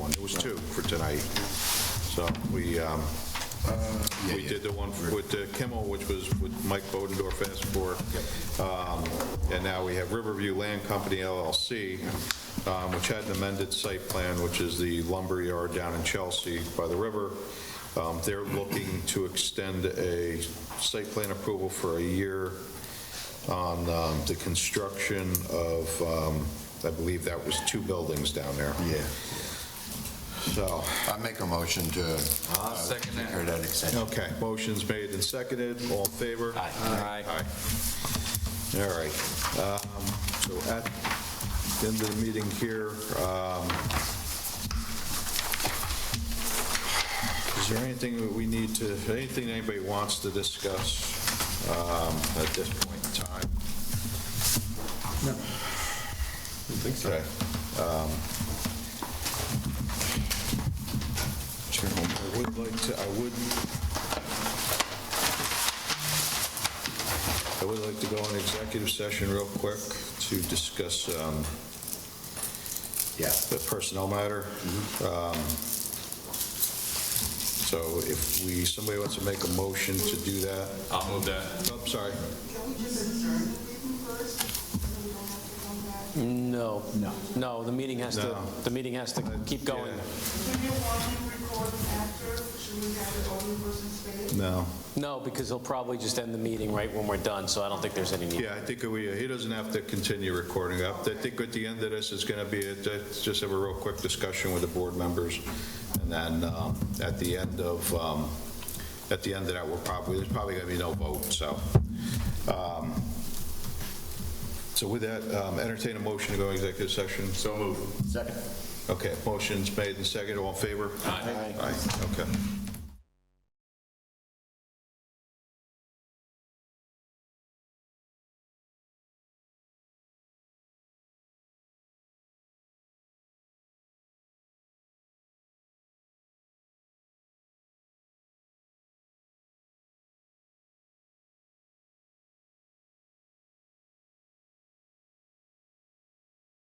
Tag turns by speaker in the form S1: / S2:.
S1: was two for tonight. So we, um, we did the one with uh, Kimmel, which was with Mike Bodendorf asked for. Um, And now we have Riverview Land Company LLC, um, which had an amended site plan, which is the lumber yard down in Chelsea by the river. Um, They're looking to extend a site plan approval for a year on um, the construction of, um, I believe that was two buildings down there.
S2: Yeah.
S1: So,
S2: I make a motion to.
S3: I'll second that.
S2: Heard that extension.
S1: okay, motion's made and seconded, all in favor?
S3: Aye.
S1: Aye. All right. um, So at the end of the meeting here, um, is there anything that we need to, anything anybody wants to discuss um, at this point in time? No. I think so. um, I would like to, I would, I would like to go on executive session real quick to discuss um,
S2: Yeah.
S1: the personnel matter. Um, So if we, somebody wants to make a motion to do that,
S3: I'll move that.
S1: oh, sorry,
S4: No. No. No, the meeting has to,
S1: No.
S4: the meeting has to keep going.
S1: no.
S4: No, because he'll probably just end the meeting right when we're done, so I don't think there's any need.
S1: Yeah, I think we, he doesn't have to continue recording up. I think at the end of this, it's going to be, a- let's just have a real quick discussion with the board members. And then um, at the end of, um, at the end of that, we're probably, there's probably going to be no vote, so. um, So with that, um, entertain a motion to go executive session. So moved.
S2: Second.
S1: Okay, motion's made and seconded. All in favor? Aye. Aye, okay.